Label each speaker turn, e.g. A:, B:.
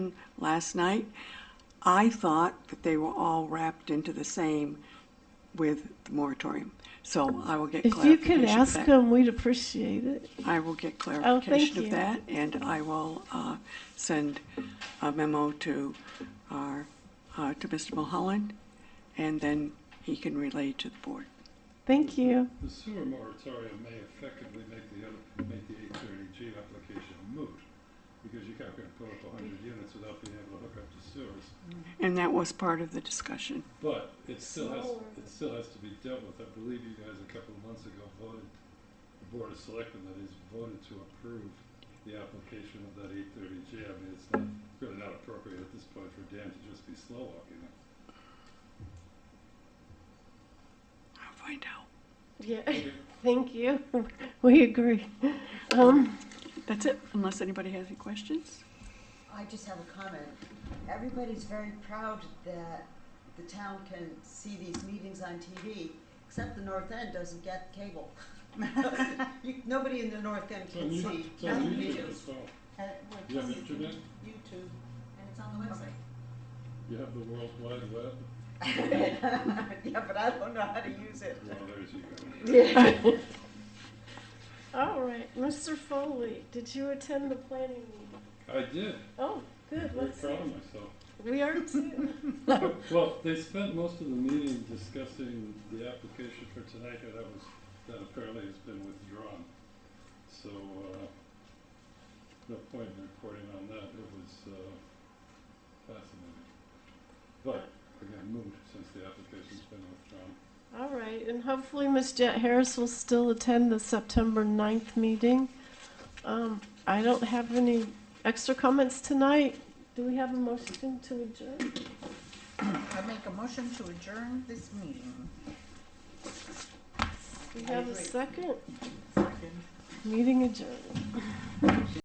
A: last night, I thought that they were all wrapped into the same with the moratorium. So I will get
B: If you
A: clarification
B: could
A: of
B: ask
A: that.
B: them, we'd appreciate it.
A: I will get
B: thank
A: clarification of
B: you.
A: that, and I will uh, send a memo to our, uh, to Mr. Mulholland, and then he can relay to the board.
B: Thank you.
C: The sewer moratorium may effectively make the, other- make the eight thirty G application moot, because you're not gonna put up a hundred units without being able to hook up to sewers.
A: And that was part of the discussion.
C: But it still has, it still has to be dealt with. I believe you guys a couple of months ago voted, the Board of Selectmen that is voted to approve the application of that eight thirty G. I mean, it's not, really not appropriate at this point for Dan to just be slow walking it.
A: I'll find out.
B: Yeah, thank you. We agree. Um,
A: That's it, unless anybody has any questions?
D: I just have a comment. Everybody's very proud that the town can see these meetings on TV, except the North End doesn't get cable. You- Nobody in the North End
C: It's on
D: can
C: YouTube,
D: see
C: it's on
D: town
C: YouTube
D: meetings.
C: as well.
D: Uh, well,
C: You have
D: it's
C: internet?
D: YouTube, and it's on the website.
C: You have the World Wide Web.
D: Yeah, but I don't know how to use it.
C: Well, there's you go.
B: all right, Mr. Foley, did you attend the planning meeting?
C: I did.
B: Oh, good,
C: Very
B: let's see.
C: proud of myself.
B: We are too.
C: Well, they spent most of the meeting discussing the application for tonight, and that was, that apparently has been withdrawn. So, uh, no point in reporting on that, it was, uh, fascinating. But, again, moot since the application's been withdrawn.
B: All right, and hopefully Ms. Jet Harris will still attend the September 9th meeting. Um, I don't have any extra comments tonight. Do we have a motion to adjourn?
E: I make a motion to adjourn this meeting.
B: We
D: I
B: have a
D: agree.
B: second? Meeting adjourned.